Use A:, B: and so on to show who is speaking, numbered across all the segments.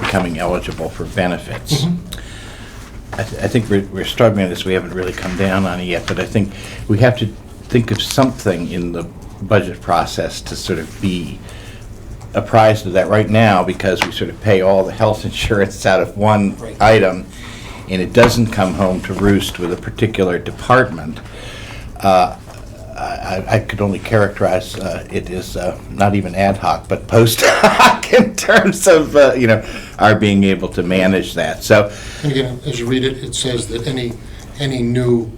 A: becoming eligible for benefits. I th- I think we're we're struggling with this, we haven't really come down on it yet, but I think we have to think of something in the budget process to sort of be apprised of that right now, because we sort of pay all the health insurance out of one
B: Right.
A: item, and it doesn't come home to roost with a particular department. I, I could only characterize uh, it as uh, not even ad hoc, but post hoc in terms of uh, you know our being able to manage that. So
C: And again, as you read it, it says that any, any new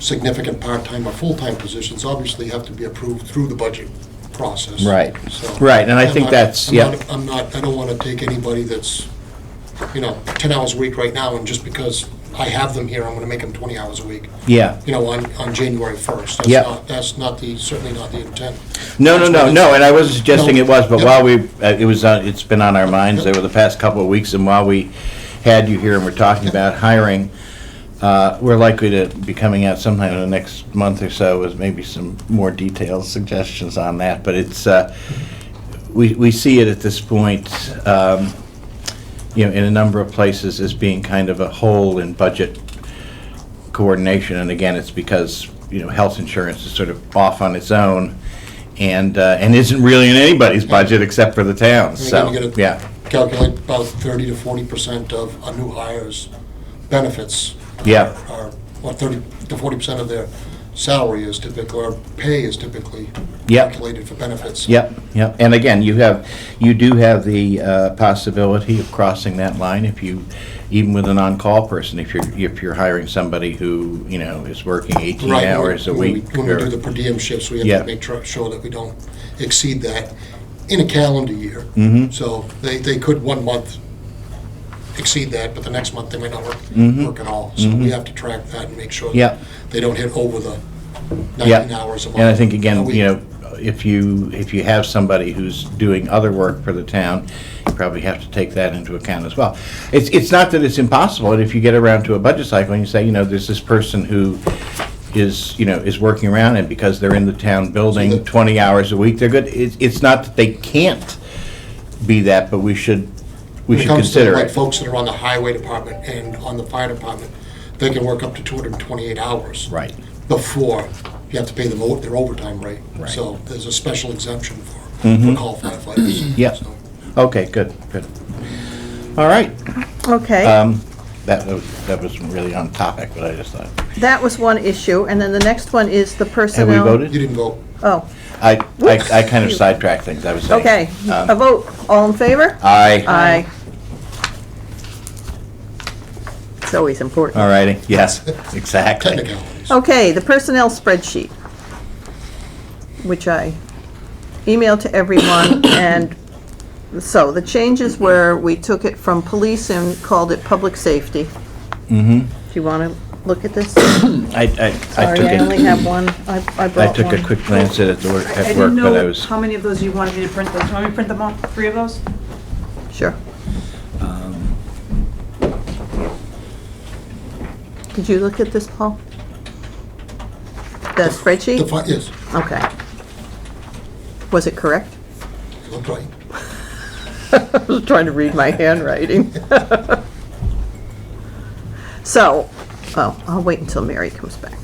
C: significant part-time or full-time positions obviously have to be approved through the budget process.
A: Right.
C: So-
A: Right, and I
C: I'm
A: think
C: not-
A: that's-
C: I'm
A: yeah.
C: not- I'm not, I don't want to take anybody that's, you know, 10 hours a week right now, and just because I have them here, I'm going to make them 20 hours a week,
A: yeah,
C: you know, on, on January 1st. That's
A: Yeah.
C: not- That's not the, certainly not the intent.
A: no, no, no, no. And I wasn't suggesting it was, but
C: No.
A: while we uh, it was uh, it's been on our minds over the past couple of weeks, and while we had you here and we're talking about hiring. Uh, we're likely to be coming out sometime in the next month or so with maybe some more detailed suggestions on that. But it's uh, we we see it at this point. Um, you know, in a number of places as being kind of a hole in budget coordination. And again, it's because, you know, health insurance is sort of off on its own and, uh, and isn't really in anybody's budget except for the town,
C: And again,
A: so,
C: you gotta
A: yeah.
C: Calculate about 30 to 40% of a new hire's benefits.
A: Yeah.
C: Are, what, 30 to 40% of their salary is typically, or pay is typically
A: Yep.
C: calculated for benefits.
A: Yep, yep. And again, you have, you do have the uh, possibility of crossing that line if you, even with an on-call person, if you're, if you're hiring somebody who, you know, is working 18
C: Right, when we-
A: hours a
C: when we-
A: week.
C: When we
A: or-
C: do the per diem shifts, we
A: Yeah.
C: have to make tru- sure that we don't exceed that in a calendar year.
A: Mm-hmm.
C: So they, they could one month exceed that, but the next month they might not work, work at all. So we have to track that and make sure
A: Mm-hmm. Yep.
C: that they don't hit over the
A: Yeah.
C: 19 hours a month.
A: And I think,
C: a
A: again,
C: week.
A: you know, if you, if you have somebody who's doing other work for the town, you probably have to take that into account as well. It's, it's not that it's impossible, and if you get around to a budget cycle and you say, you know, there's this person who is, you know, is working around, and because they're in the town building
C: that-
A: 20 hours a week, they're good, it's, it's not that they can't be that, but we should, we
C: When it
A: should
C: comes to
A: consider
C: like
A: it.
C: folks that are on the highway department and on the fire department, they can work up to 228 hours.
A: Right,
C: Before you have to pay them o- their overtime rate.
A: Right. Mm-hmm.
C: So there's a special exemption for, for call firefighters.
A: Yep.
C: So-
A: okay, good, good. All right, Uh,
D: Okay,
A: Um, that was, that was really on topic, but I just thought,
D: that was one issue, and then the next one is the
A: have
D: personnel.
A: we voted?
C: You didn't vote.
D: Oh,
A: I,
D: Whoops.
A: I, I kind of sidetracked things, I was saying. Um,
D: okay, a vote, all in favor?
A: Uh, Aye,
D: Aye. It's always important.
A: all righty, yes, exactly.
C: Technicalities.
D: Okay, the personnel spreadsheet, which I emailed to everyone, and so the changes were, we took it from police and called it public safety. Mm-hmm. Do you want to look at this?
A: I, I, I
D: Sorry,
A: took
D: I only
A: a,
D: have one, I I brought one.
A: I took a quick glance at it at work-
E: I
A: at work,
E: didn't
A: but I
E: know
A: was,
E: how many of those you wanted me to print those. Want me to print them all, three of those?
D: Sure. Did you look at this, Paul? The
C: The
D: spreadsheet?
C: fi- Yes,
D: Okay. Was it correct?
C: you looked right.
D: I was trying to read my handwriting. So, oh, I'll wait until Mary comes back.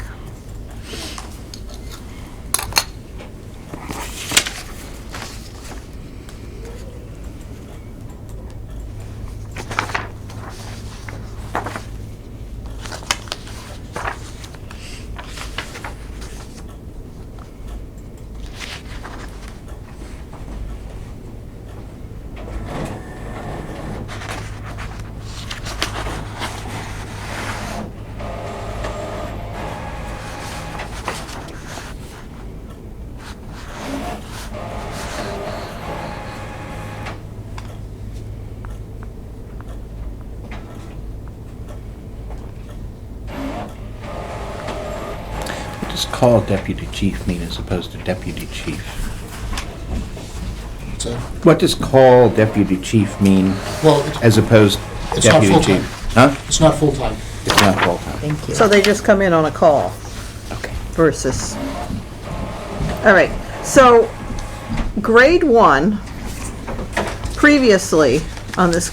A: just call deputy chief mean as opposed to deputy chief?
C: So,
A: What does call deputy chief mean
C: Well, it's-
A: as opposed
C: It's not
A: deputy
C: full-time.
A: chief? Huh?
C: it's not full-time.
A: It's not full-time.
D: So they just come in on a call
A: Okay.
D: versus, all right. So, grade one, previously on this